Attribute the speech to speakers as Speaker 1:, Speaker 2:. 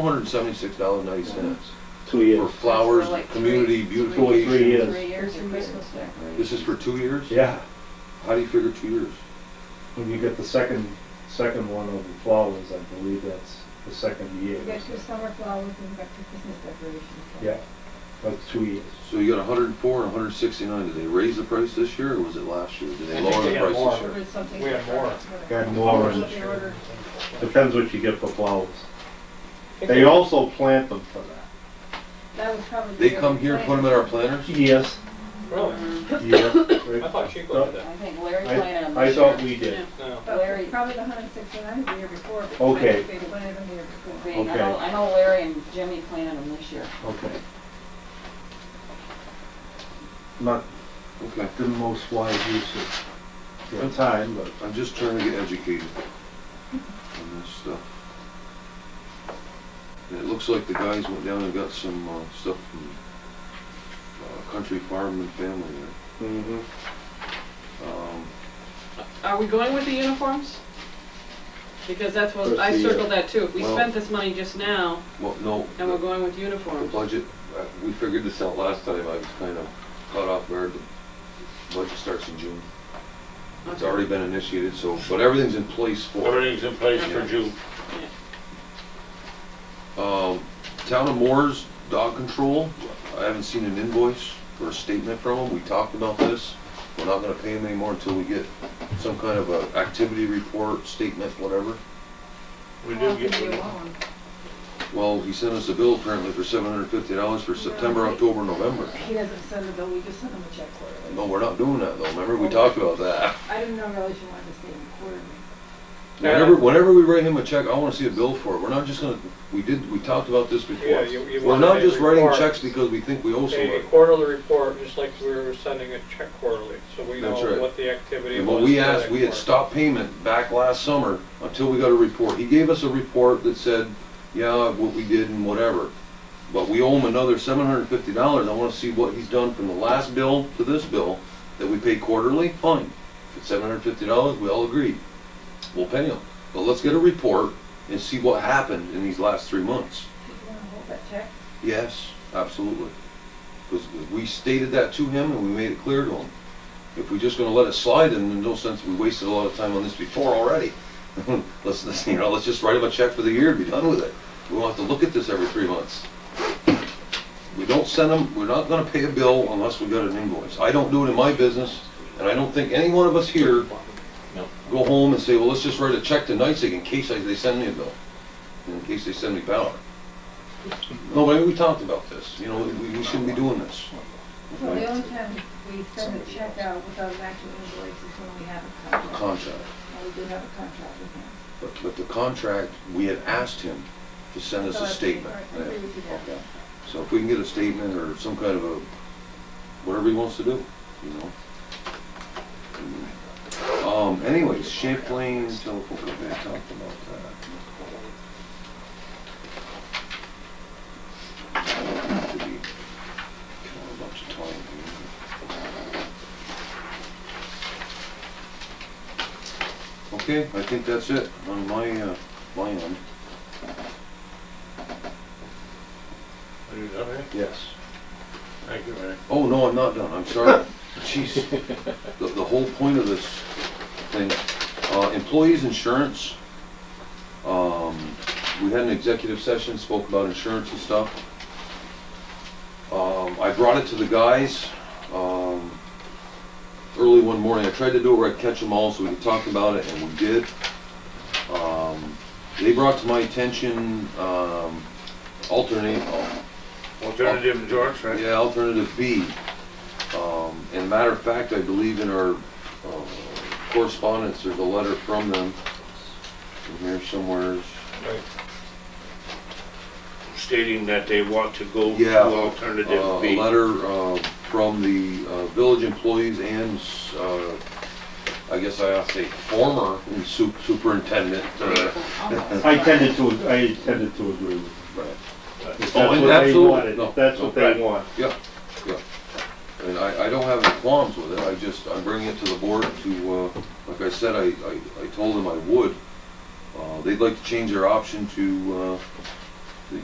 Speaker 1: Four hundred and seventy-six dollars ninety cents
Speaker 2: two
Speaker 1: for
Speaker 2: years.
Speaker 1: flowers,
Speaker 3: Like three-
Speaker 1: community
Speaker 2: Three
Speaker 1: beautification.
Speaker 2: years.
Speaker 3: Three years of Christmas decorations.
Speaker 1: This is for two years?
Speaker 2: Yeah,
Speaker 1: How do you figure two years?
Speaker 2: when you get the second, second one of the flowers, I believe that's the second year.
Speaker 4: You got your summer flowers and you got your Christmas decorations.
Speaker 2: Yeah, that's two years.
Speaker 1: So you got hundred and four and hundred and sixty-nine. Did they raise the price this year or was it last year? Did
Speaker 5: I
Speaker 1: they
Speaker 5: think
Speaker 1: lower
Speaker 5: they
Speaker 1: the
Speaker 5: had
Speaker 1: price
Speaker 5: more.
Speaker 1: this year?
Speaker 3: Or something.
Speaker 5: We have more.
Speaker 2: Got
Speaker 3: That's what
Speaker 2: orange.
Speaker 3: they ordered.
Speaker 2: Depends what you get for flowers. They also plant them for that.
Speaker 4: That was probably.
Speaker 1: They come here, put them in our planters?
Speaker 2: Yes.
Speaker 5: Really?
Speaker 2: Yeah.
Speaker 5: I
Speaker 2: right.
Speaker 5: thought Chico did that.
Speaker 3: I think Larry
Speaker 2: I-
Speaker 3: planted them.
Speaker 2: I
Speaker 3: this
Speaker 2: thought
Speaker 3: year.
Speaker 2: we did.
Speaker 5: No.
Speaker 3: Larry-
Speaker 4: But Oh, probably the hundred and sixty-nine the year before. but
Speaker 2: Okay.
Speaker 4: They planted them the year before.
Speaker 3: Being- I
Speaker 2: Okay.
Speaker 3: know, I know Larry and Jimmy planted them this year.
Speaker 2: Okay. Not
Speaker 1: Okay,
Speaker 2: the most wise use of your time, but
Speaker 1: I'm just trying to get educated on this stuff. And it looks like the guys went down and got some, uh, stuff from, uh, Country Farm and Family there. Um,
Speaker 6: Are we going with the uniforms? Because that's what, I
Speaker 2: Proceed.
Speaker 6: circled that too. If we
Speaker 1: Well-
Speaker 6: spent this money just now
Speaker 1: well, no.
Speaker 6: and we're going with
Speaker 1: The
Speaker 6: uniforms,
Speaker 1: budget, uh, we figured this out last time, I was kind of caught off guard, the budget starts in June. It's already been initiated, so, but everything's in place for, it.
Speaker 7: Everything's in place for June.
Speaker 1: um, Town of Moore's dog control, I haven't seen an invoice or a statement from them, we talked about this. We're not gonna pay them anymore until we get some kind of a activity report, statement, whatever.
Speaker 7: We
Speaker 4: Well,
Speaker 7: do
Speaker 4: it
Speaker 7: get,
Speaker 4: could be
Speaker 7: we
Speaker 4: alone.
Speaker 1: Well, he sent us a bill apparently for seven hundred fifty dollars for September, October, November.
Speaker 4: He doesn't send a bill, we just send him a check quarterly.
Speaker 1: No, we're not doing that though, remember,
Speaker 5: Oh.
Speaker 1: we talked about that.
Speaker 4: I didn't know really she wanted to stay in quarterly.
Speaker 1: Whenever, whenever we write him a check, I wanna see a bill for it. We're not just gonna, we did, we talked about this
Speaker 5: Yeah,
Speaker 1: before.
Speaker 5: you- you
Speaker 1: We're
Speaker 5: wanna
Speaker 1: not
Speaker 5: pay
Speaker 1: just writing
Speaker 5: reports.
Speaker 1: checks because we think we owe
Speaker 5: A
Speaker 1: somebody.
Speaker 5: quarterly report, just like we were sending a check quarterly, so we know
Speaker 1: That's right.
Speaker 5: what the activity was.
Speaker 1: And what we
Speaker 5: for that
Speaker 1: asked, we had
Speaker 5: quarter.
Speaker 1: stopped payment back last summer until we got a report. He gave us a report that said, yeah, what we did and whatever. But we owe him another seven hundred and fifty dollars. I wanna see what he's done from the last bill to this bill that we pay quarterly, fine. If it's seven hundred and fifty dollars, we all agree. We'll pay him. But let's get a report and see what happened in these last three months.
Speaker 4: Did you wanna hold that check?
Speaker 1: Yes, absolutely. Because we stated that to him and we made it clear to him. If we're just gonna let it slide, then there's no sense, we wasted a lot of time on this before already. Let's, let's, you know, let's just write him a check for the year and be done with it. We won't have to look at this every three months. We don't send them, we're not gonna pay a bill unless we got an invoice. I don't do it in my business, and I don't think any one of us here go home and say, well, let's just write a check to NICEAG in case I- they send me a bill, in case they send me power. No, but we talked about this, you know, we, we shouldn't be doing this.
Speaker 4: Well, the only time we send a check out without an actual invoice is when we have a
Speaker 1: The
Speaker 4: contract.
Speaker 1: contract,
Speaker 4: Well, we do have a contract with him.
Speaker 1: but, but the contract, we had asked him to send us a
Speaker 4: So I think-
Speaker 1: statement.
Speaker 4: I agree with you there.
Speaker 1: Yeah. So if we can get a statement or some kind of a, whatever he wants to do, you know? Um, anyways, Champlain telephone company, I talked about that. Could be kind of a bunch of time here. Okay, I think that's it on my, uh, my end.
Speaker 7: do that, right?
Speaker 1: Yes.
Speaker 7: Thank you, Mary.
Speaker 1: Oh, no, I'm not done, I'm sorry. Jeez, the, the whole point of this thing, uh, employees' insurance. Um, we had an executive session, spoke about insurance and stuff. Um, I brought it to the guys, um, early one morning, I tried to do it where I'd catch them all so we could talk about it, and we did. Um, they brought to my attention, um, alternate,
Speaker 7: Alternative insurance, right?
Speaker 1: yeah, alternative B. Um, and matter of fact, I believe in our uh, correspondence, there's a letter from them in here somewhere.
Speaker 7: Stating that they want to go to
Speaker 1: Yeah, Uh,
Speaker 7: alternative
Speaker 1: A
Speaker 7: B.
Speaker 1: letter uh, from the uh, village employees and, uh, I guess I ought to say former su- superintendent. uh,
Speaker 3: Almost.
Speaker 2: I tended to, I tended to agree with them. If
Speaker 1: Oh,
Speaker 2: that's what they
Speaker 1: absolutely.
Speaker 2: wanted,
Speaker 1: No,
Speaker 2: if that's what they
Speaker 7: no.
Speaker 2: want.
Speaker 1: And I, I don't have any qualms with it, I just, I'm bringing it to the board to, uh, like I said, I, I, I told them I would. Uh, they'd like to change their option to, uh,